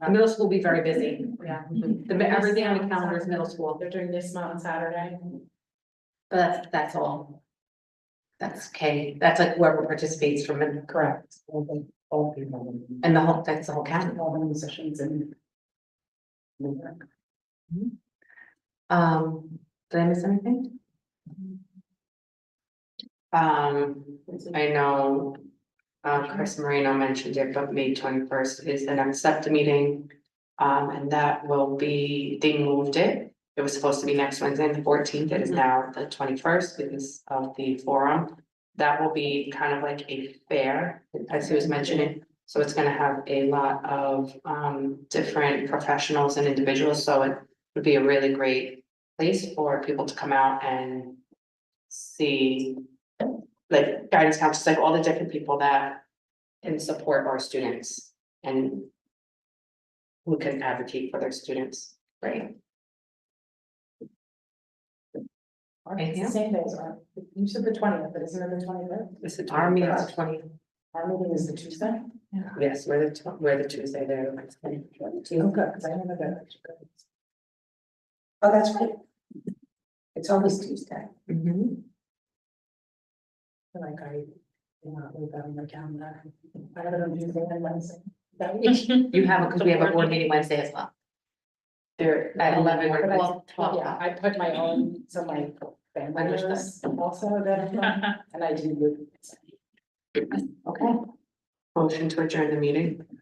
The Uh, middle school will be very busy. Mm-hmm. Yeah. The, everything on the calendar is middle school, They're doing this mountain Saturday. but that's, that's all. That's K, that's like whoever participates from, it, Correct. All the, all people. and the whole, that's the whole county. All the musicians and. Mm-hmm. Um, did I miss anything? Um, I know, uh, Chris Marino mentioned it, but May twenty-first is the next SEPTA meeting. Um, and that will be, they moved it. It was supposed to be next Wednesday, the fourteenth. It is now the twenty-first because of the forum. That will be kind of like a fair, as he was mentioning. So it's gonna have a lot of, um, different professionals and individuals, so it would be a really great place for people to come out and see like guidance counselors, like all the different people that can support our students and who can advocate for their students, right? It's the same days, aren't it? you said the twentieth, but isn't it the twenty fifth? This is Our meeting is twenty. Our meeting is the Tuesday. Yes, we're the, tw- we're the Tuesday there. the Wednesday. Okay, because Oh, I remember that. Oh, that's right. It's always Tuesday. Mhm. Like I, you know, we've got on my calendar. I have it on Tuesday and Wednesday. That week. You have, because we have a board meeting Wednesday as well. They're at eleven or Well, twelve. Yeah, I put my own, so my family Understood. members also that, and I do. Okay. Motion to adjourn the meeting.